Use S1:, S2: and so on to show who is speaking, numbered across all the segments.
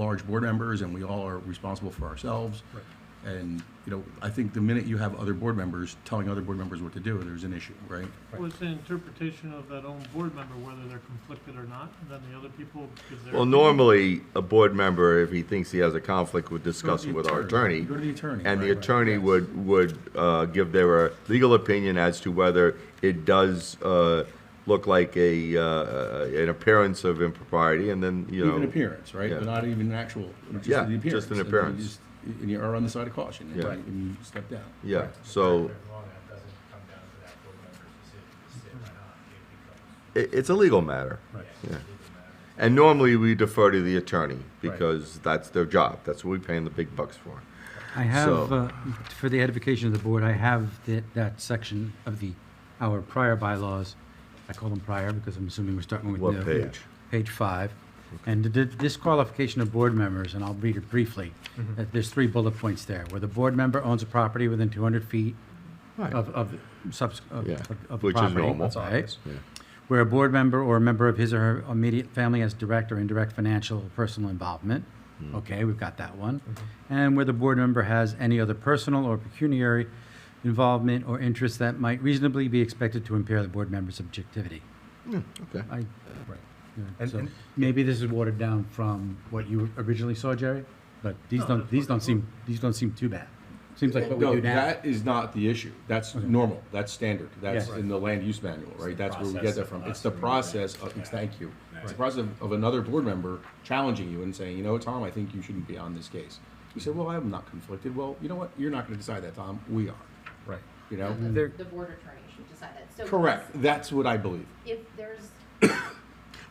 S1: large board members and we all are responsible for ourselves. And, you know, I think the minute you have other board members telling other board members what to do, there's an issue, right?
S2: Well, it's an interpretation of that own board member, whether they're conflicted or not, and then the other people, because they're.
S3: Well, normally, a board member, if he thinks he has a conflict, would discuss it with our attorney.
S1: Go to the attorney.
S3: And the
S1: right.
S3: attorney would, would uh, give their uh, legal opinion as to whether it does uh, look like a, uh, an appearance of impropriety, and then, you know.
S1: Even appearance, right?
S3: yeah.
S1: But not even an actual, just the
S3: Yeah,
S1: appearance.
S3: just an
S1: And you
S3: appearance.
S1: just- And you are on the side of caution, and
S3: Yeah.
S1: and you step down.
S3: Yeah, so
S4: Law that doesn't come down to that board member's decision to sit or not, it becomes,
S3: it, it's a legal matter.
S4: yeah, it doesn't matter.
S3: And normally, we defer to the attorney, because that's their job, that's what we pay them the big bucks for.
S5: I have, uh, for the edification of the board, I have that, that section of the, our prior bylaws. I call them prior because I'm assuming we're starting with new.
S3: What page?
S5: Page five. And the di- disqualification of board members, and I'll read it briefly.
S2: Mm-hmm.
S5: Uh, There's three bullet points there, where the board member owns a property within 200 feet of, of subs, of
S3: Yeah,
S5: of- of
S3: which is
S5: property,
S3: normal. That's
S5: right?
S3: obvious, yeah.
S5: Where a board member or a member of his or her immediate family has direct or indirect financial or personal involvement.
S3: Hmm. Mm.
S5: Okay, we've got that one.
S2: Mm-hmm.
S5: And where the board member has any other personal or pecuniary involvement or interest that might reasonably be expected to impair the board member's objectivity.
S3: Okay.
S5: I, yeah,
S6: And-
S5: so
S6: and-
S5: maybe this is watered down from what you originally saw, Jerry, but these
S2: No,
S5: don't,
S2: that's
S5: these
S2: what
S5: don't
S2: they
S5: seem, these don't seem too bad. Seems like what we
S1: No,
S5: do now.
S1: That is not the issue. That's normal. That's standard. That's
S5: Yeah.
S1: in the land use manual, right? That's where we get that from. It's the process of, it's- thank you. It's the process of- of another board member challenging you and saying, you know, Tom, I think you shouldn't be on this case. You said, well, I'm not conflicted. Well, you know what? You're not gonna decide that, Tom. We are,
S6: Right.
S1: you know?
S7: The board attorney should decide that. So
S1: Correct. That's what I believe.
S7: If there's,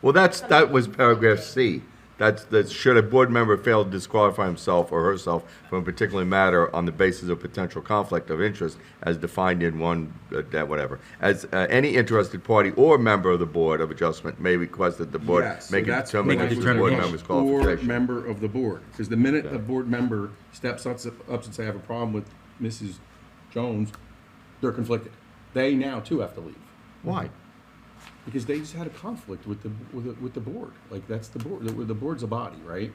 S3: Well, that's, that was paragraph C. That's, that should a board member fail to disqualify himself or herself from a particular matter on the basis of potential conflict of interest as defined in one, uh, that whatever. As, uh, any interested party or member of the Board of Adjustment may request that the board
S1: Yes, so
S3: make a
S1: that's the
S3: determination of the board
S1: language.
S3: member's
S1: Or
S3: qualification.
S1: member of the board, because the minute a board member steps up, up and say, I have a problem with Mrs. Jones, they're conflicted. They now too have to leave,
S3: Why?
S1: because they just had a conflict with the, with the, with the board, like, that's the board, the, the board's a body, right?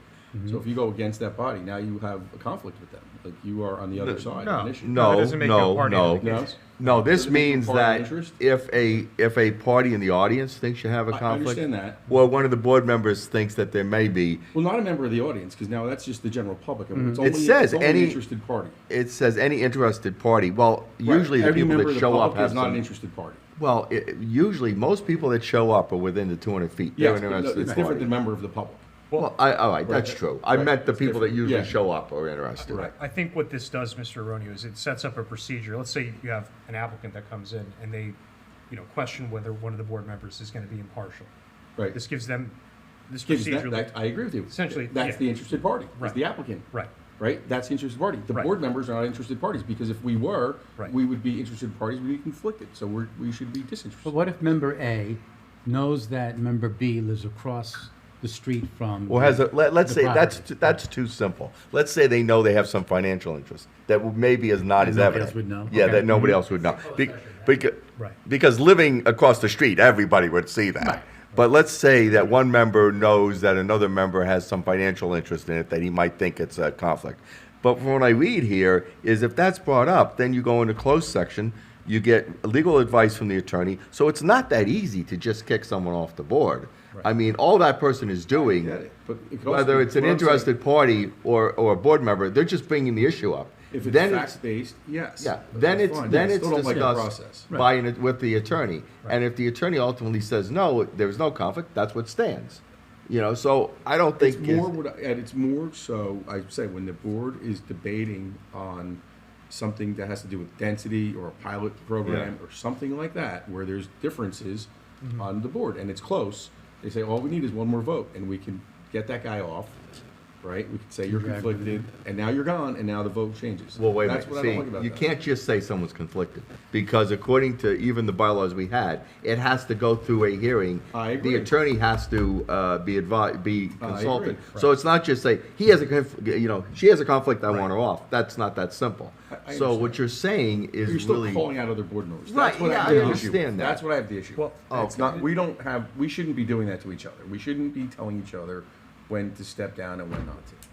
S1: So if you go against that body, now you have a conflict with them, like, you are on the other side of an issue.
S3: No,
S6: It doesn't make you a
S3: no,
S6: party to
S3: no.
S6: the case.
S1: No?
S3: No, this
S1: Doesn't make
S3: means
S1: party
S3: that
S1: interest?
S3: if a, if a party in the audience thinks you have a
S1: I- I
S3: conflict.
S1: understand that.
S3: Or one of the board members thinks that there may be,
S1: Well, not a member of the audience, because now that's just the general public, and it's
S3: Mm-hmm. It
S1: only,
S3: says
S1: it's only an
S3: any-
S1: interested party.
S3: it says any interested party, well,
S1: Right.
S3: usually the
S1: Every
S3: people
S1: member
S3: that
S1: of the
S3: show up
S1: public
S3: have
S1: Is not an
S3: some-
S1: interested party.
S3: Well, i usually, most people that show up are within the 200 feet.
S1: Yeah,
S3: They're
S1: it's- no,
S3: interested
S1: it's
S3: in
S1: different
S3: party.
S1: than member of the public.
S3: Well, I, all right, that's true. I
S1: Right.
S3: meant the people that
S1: different.
S3: usually
S1: Yeah.
S3: show up are interested.
S1: Right.
S6: I think what this does, Mr. Aronio, is it sets up a procedure. Let's say you have an applicant that comes in and they, you know, question whether one of the board members is going to be impartial.
S1: Right.
S6: This gives them, this
S1: Gives that,
S6: procedure,
S1: that, I agree with you.
S6: Essentially,
S1: That's
S6: yeah.
S1: the interested party, It's
S6: Right.
S1: the applicant.
S6: right,
S1: Right? That's the interested party. The
S6: Right.
S1: board members are not interested parties, because if we were,
S6: Right.
S1: we would be interested parties, we'd be conflicted, so we're, we should be
S5: But
S1: disinterested.
S5: what if member A knows that member B lives across the street from?
S3: Well, has a, let, let's
S5: the
S3: say that's
S5: property?
S3: too, that's too simple. Let's say they know they have some financial interest that w- maybe is not
S5: That
S3: as
S5: nobody
S3: evident.
S5: else would know?
S3: Yeah,
S5: Okay. Mm-hmm.
S3: that nobody else would know. Be, because,
S6: Right.
S3: because living across the street, everybody would see that. But let's say that one member knows that another member has some financial interest in it that he might think it's a conflict. But from what I read here is if that's brought up, then you go into closed section. You get legal advice from the attorney. So it's not that easy to just kick someone off the board. I mean, all that person is doing
S1: Get it, but it could also
S3: whether
S1: be-
S3: it's an
S1: what I'm saying-
S3: interested party or, or a board member, they're just bringing the issue up.
S1: If it's
S3: Then it's,
S1: fact-based, yes.
S3: yeah,
S1: But
S3: then
S1: that's
S3: it's,
S1: fine.
S3: then
S1: I
S3: it's
S1: still don't like that process.
S3: discussed by, an- with the attorney. And if the attorney ultimately says, no, there's no conflict, that's what stands. You know, so I don't think.
S1: It's
S3: is-
S1: more what, I- and it's more so, I say, when the board is debating on something that has to do with density or a pilot program or something like that, where there's differences
S3: Mm-hmm.
S1: on the board and it's close, they say, all we need is one more vote and we can get that guy off, right? We can say you're conflicted and now you're gone and now the vote changes.
S3: Well, wait a
S1: That's
S3: minute.
S1: what I
S3: See,
S1: don't like about
S3: you
S1: that.
S3: can't just say someone's conflicted because according to even the bylaws we had, it has to go through a hearing.
S1: I agree.
S3: The attorney has to uh, be advised, be
S1: I agree.
S3: consulted. So it's not just say he has a, conf- you know, she has a conflict. I want her off. That's not that simple.
S1: I
S3: so
S1: understand.
S3: what you're saying is
S1: You're still
S3: really
S1: calling out other board members. That's
S3: Right,
S1: what I,
S3: yeah, I
S1: have the issue with.
S3: understand that.
S1: That's what I have the issue.
S6: Well,
S1: Well, it's not. We don't have. We shouldn't be doing that to each other. We shouldn't be telling each other when to step down and when not to.